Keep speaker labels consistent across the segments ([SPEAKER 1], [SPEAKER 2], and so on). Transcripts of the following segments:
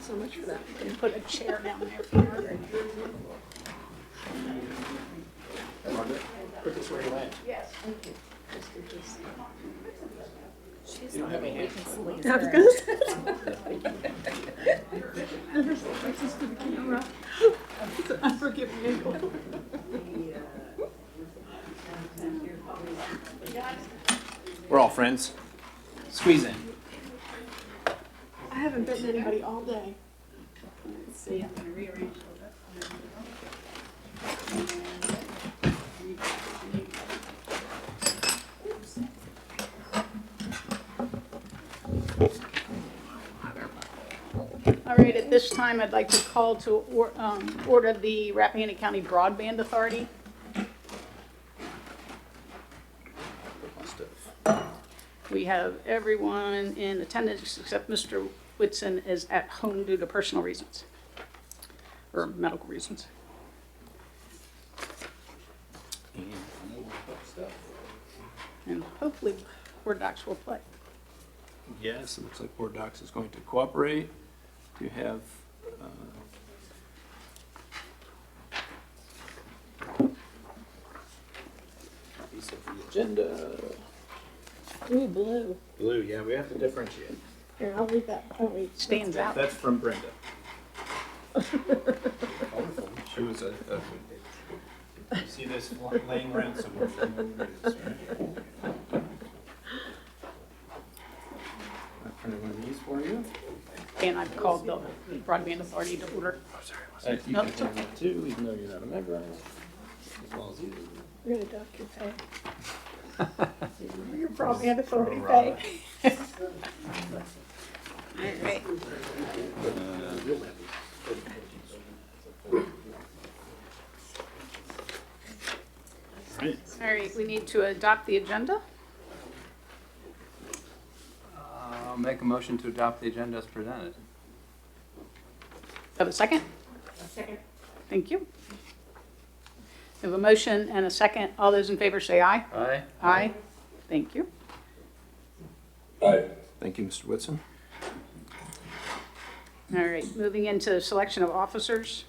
[SPEAKER 1] so much for that.
[SPEAKER 2] You can put a chair down there for Margaret.
[SPEAKER 3] Put this where you went.
[SPEAKER 1] Just in case.
[SPEAKER 2] She's not we can squeeze
[SPEAKER 1] I was
[SPEAKER 2] her.
[SPEAKER 1] gonna say. Never say racist to the camera. It's an unforgiving angle.
[SPEAKER 3] We're all friends. Squeeze in.
[SPEAKER 1] I haven't bitten anybody all day.
[SPEAKER 2] Let's see, I'm gonna rearrange All right, at this time, I'd like to call to or- um, order the Rappahannock County Broadband Authority. We have everyone in attendance except Mr. Whitson is at home due to personal reasons, or medical reasons. And hopefully, Word docs will play.
[SPEAKER 3] Yes, it looks like Board Docs is going to cooperate to have, uh, piece of the agenda.
[SPEAKER 1] Ooh, blue.
[SPEAKER 3] Blue, yeah, we have to differentiate.
[SPEAKER 1] Here, I'll leave that. Oh, wait.
[SPEAKER 2] Stands out.
[SPEAKER 3] That's from Brenda. She was a, a- you see this laying around somewhere. She knew where it is, right? I printed one of these for you.
[SPEAKER 2] And I've called the Broadband Authority to order.
[SPEAKER 3] Uh, You
[SPEAKER 2] Nope.
[SPEAKER 3] can have it too, even though you're not a member. As well as you.
[SPEAKER 1] We're gonna dock your pay. Your broadband authority pay.
[SPEAKER 2] All right, we need to adopt the agenda.
[SPEAKER 4] I'll make a motion to adopt the agenda as presented.
[SPEAKER 2] Have a second? Second. Thank you. We have a motion and a second. All those in favor say aye.
[SPEAKER 4] Aye.
[SPEAKER 2] Aye. Thank you.
[SPEAKER 3] Thank you, Mr. Whitson.
[SPEAKER 2] All right, moving into selection of officers.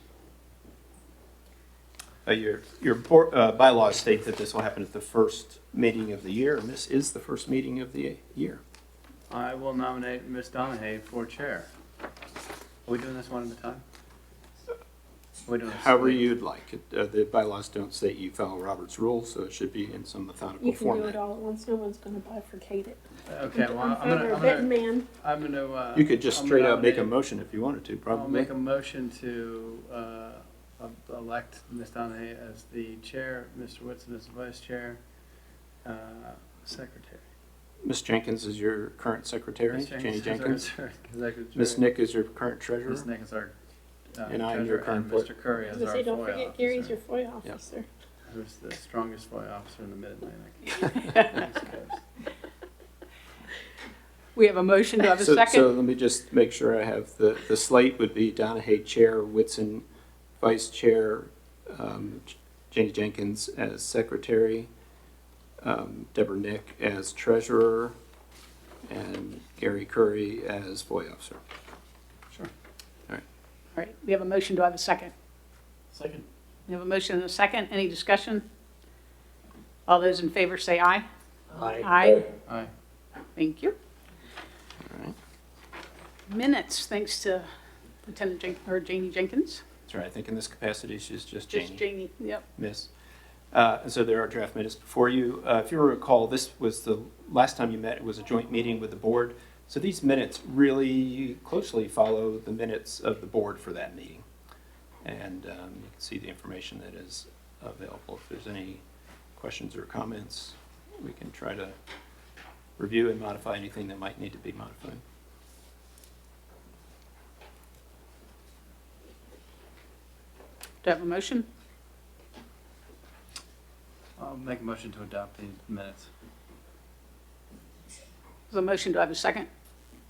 [SPEAKER 3] Uh, Your, your board- uh, bylaws state that this will happen at the first meeting of the year, and this is the first meeting of the year.
[SPEAKER 4] I will nominate Ms. Donahue for chair. Are we doing this one at a time? Are we doing this?
[SPEAKER 3] However you'd like. It, uh, The bylaws don't state you follow Robert's rules, so it should be in some methodical
[SPEAKER 1] You can do it
[SPEAKER 3] format.
[SPEAKER 1] all at once. No one's gonna bifurcate it.
[SPEAKER 4] Okay, well, I'm
[SPEAKER 1] favor
[SPEAKER 4] gonna,
[SPEAKER 1] of
[SPEAKER 4] I'm
[SPEAKER 1] bitten
[SPEAKER 4] gonna,
[SPEAKER 1] man.
[SPEAKER 4] I'm gonna, uh.
[SPEAKER 3] You could just
[SPEAKER 4] I'm
[SPEAKER 3] straight out make a
[SPEAKER 4] nominate-
[SPEAKER 3] motion if you wanted to,
[SPEAKER 4] I'll
[SPEAKER 3] probably.
[SPEAKER 4] make a motion to, uh, e- elect Ms. Donahue as the chair, Mr. Whitson as the vice chair, uh, secretary.
[SPEAKER 3] Ms. Jenkins is your current secretary,
[SPEAKER 4] Ms.
[SPEAKER 3] Jenny
[SPEAKER 4] is our
[SPEAKER 3] Jenkins.
[SPEAKER 4] executive
[SPEAKER 3] Ms.
[SPEAKER 4] chair.
[SPEAKER 3] Nick is your current treasurer.
[SPEAKER 4] Ms. Nick is our, uh,
[SPEAKER 3] And I am your
[SPEAKER 4] treasurer, and
[SPEAKER 3] current
[SPEAKER 4] Mr. Curry
[SPEAKER 1] I
[SPEAKER 4] is
[SPEAKER 1] was
[SPEAKER 4] our FOIA
[SPEAKER 1] gonna say, don't forget Gary's
[SPEAKER 4] officer.
[SPEAKER 1] your FOIA officer.
[SPEAKER 4] Who's the strongest FOIA officer in the Mid-Atlantic? East Coast.
[SPEAKER 2] We have a motion. Do I have a
[SPEAKER 3] So, so
[SPEAKER 2] second?
[SPEAKER 3] let me just make sure I have, the, the slate would be Donahue Chair, Whitson Vice Chair, um, J- Jenny Jenkins as Secretary, um, Deborah Nick as Treasurer, and Gary Curry as FOIA Officer.
[SPEAKER 2] All right, we have a motion. Do I have a second?
[SPEAKER 3] Second.
[SPEAKER 2] We have a motion and a second. Any discussion? All those in favor say aye. Aye.
[SPEAKER 4] Aye.
[SPEAKER 2] Thank you.
[SPEAKER 3] All right,
[SPEAKER 2] Minutes, thanks to Lieutenant Jen, or Janie Jenkins.
[SPEAKER 3] that's right, I think in this capacity, she's just Janie.
[SPEAKER 2] Just Janie, yep.
[SPEAKER 3] miss. Uh, and so there are draft minutes before you. Uh, if you recall, this was the last time you met, it was a joint meeting with the board. So these minutes really closely follow the minutes of the board for that meeting. And um, you can see the information that is available. If there's any questions or comments, we can try to review and modify anything that might need to be modified.
[SPEAKER 2] Do I have a motion?
[SPEAKER 4] I'll make a motion to adopt these minutes.
[SPEAKER 2] There's a motion. Do I have a second?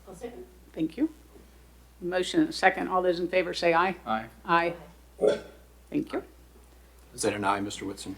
[SPEAKER 1] I'll second.
[SPEAKER 2] Thank you. Motion and a second. All those in favor say aye.
[SPEAKER 4] Aye.
[SPEAKER 2] Aye. Thank you.
[SPEAKER 3] Is that an aye, Mr. Whitson?